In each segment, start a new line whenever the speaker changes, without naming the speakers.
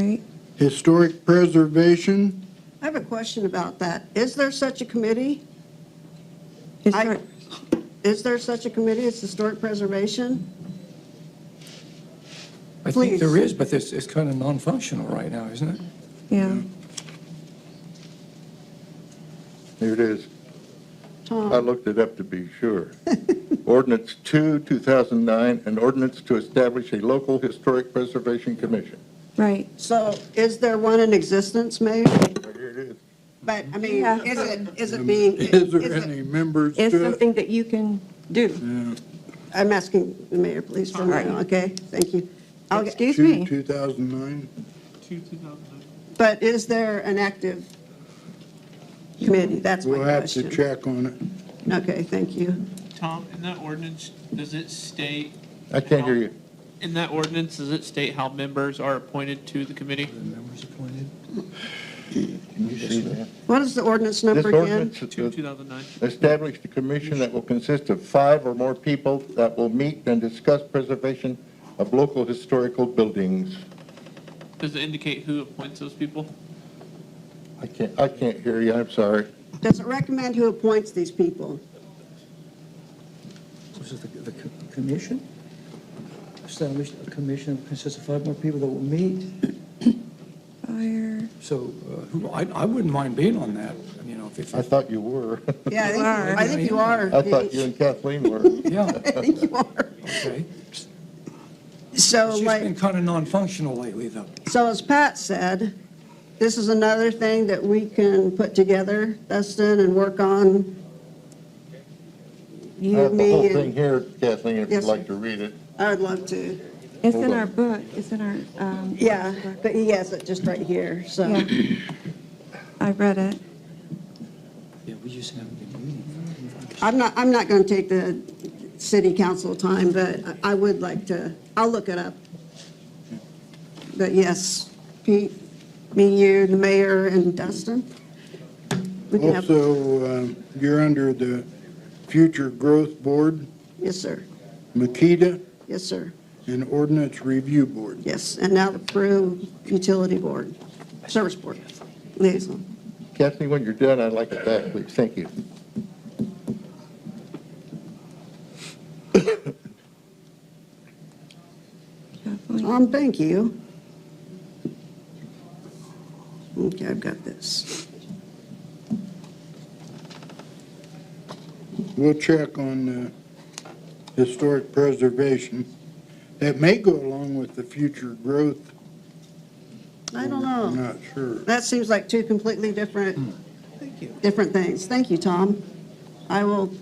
Right.
Historic Preservation,
I have a question about that. Is there such a committee?
Is
I-
there,
Is there such a committee? It's Historic Preservation?
I
Please.
think there is, but it's, it's kind of non-functional right now, isn't it?
yeah,
there it is. I
Tom,
looked it up to be sure. Ordinance 2, 2009, an ordinance to establish a local historic preservation commission.
right.
so is there one in existence, Mayor?
Here it is.
But, I mean,
Yeah.
is it, is it being?
Um, Is there
is it-
any members
It's
to it?
something that you can do.
I'm asking the mayor, please, for
Alright.
now, okay? Thank you. I'll get-
Excuse
Two,
me.
2009?
But is there an active committee? That's my
We'll have to
question.
check on it.
Okay, thank you.
Tom, in that ordinance, does it state?
I can't hear you.
In that ordinance, does it state how members are appointed to the committee?
The members appointed.
Can you see that?
What is the ordinance
This
number again?
ordinance
Two,
is to
2009.
establish the commission that will consist of five or more people that will meet and discuss preservation of local historical buildings.
Does it indicate who appoints those people?
I can't, I can't hear you, I'm sorry.
Does it recommend who appoints these people?
This is the, the co- commission, established a commission that consists of five more people that will meet,
Fire,
So uh, who, I, I wouldn't mind being on that, you know, if, if-
I thought you were.
Yeah, I think,
Are.
I think you are.
I thought you and Kathleen were.
yeah,
I think you are.
okay.
So
She's
like,
been kind of non-functional lately, though.
so as Pat said, this is another thing that we can put together, Dustin, and work on.
I
You,
have the whole
me,
thing
and
here, Kathleen, if
Yes,
you'd
sir.
like to read it.
I would love to.
it's in our book, it's in our, um,
Yeah, but he has it just right here, so.
yeah. I read it.
yeah, we just haven't been meeting.
I'm not, I'm not going to take the city council time, but I- I would like to, I'll look it up. But yes, Pete, me, you, the mayor, and Dustin. We can have,
Also, um, you're under the Future Growth Board,
yes, sir,
Makita,
yes, sir,
and Ordinance Review Board.
yes, and now the Peru Utility Board, Service Board liaison.
Kathleen, when you're done, I'd like it back, please. Thank you.
Kathleen.
Tom, Um, thank you. Okay, I've got this.
We'll check on uh, historic preservation. That may go along with the future growth.
I don't
I'm
know.
not sure.
That seems like two completely different, different things. Thank you, Tom. I will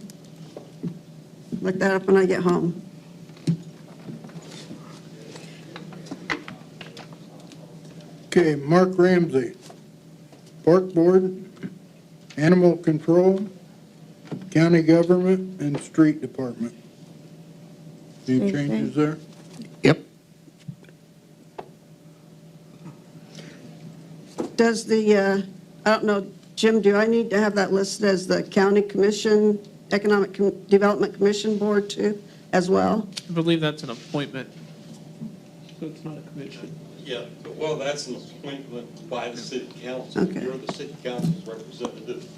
look that up when I get home.
Okay, Mark Ramsey, Park Board, Animal Control, County Government, and Street Department. Any
Same thing.
changes there?
Yep.
Does the, uh, I don't know, Jim, do I need to have that listed as the County Commission, Economic Com- Development Commission Board too, as well?
I believe that's an appointment. So it's not a commission.
Yeah, but, well, that's an appointment by the city council.
Okay.
You're the city council's representative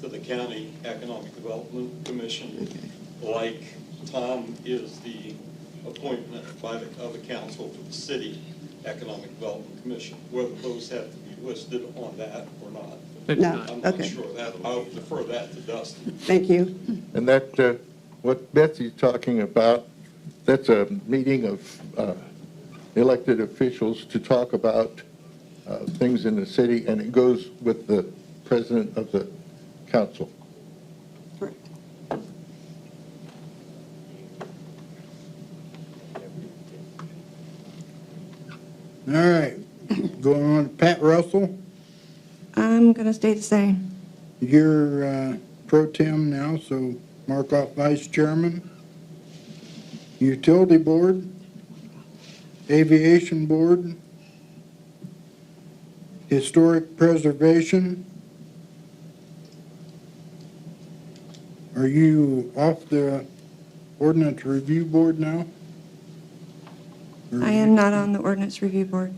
to the county economic development commission, like Tom is the appointment by the, of the council for the city economic development commission. Whether those have to be listed on that or not,
They do
No.
not.
I'm not
Okay.
sure. That, I'll defer that to Dustin.
Thank you.
And that, uh, what Betsy's talking about, that's a meeting of uh, elected officials to talk about uh, things in the city, and it goes with the president of the council.
All right, going on, Pat Russell,
I'm going to stay the same.
you're uh, pro tem now, so mark off vice chairman. Utility Board, Aviation Board, Historic Preservation. Are you off the Ordinance Review Board now? Or
I am not on the ordinance review board.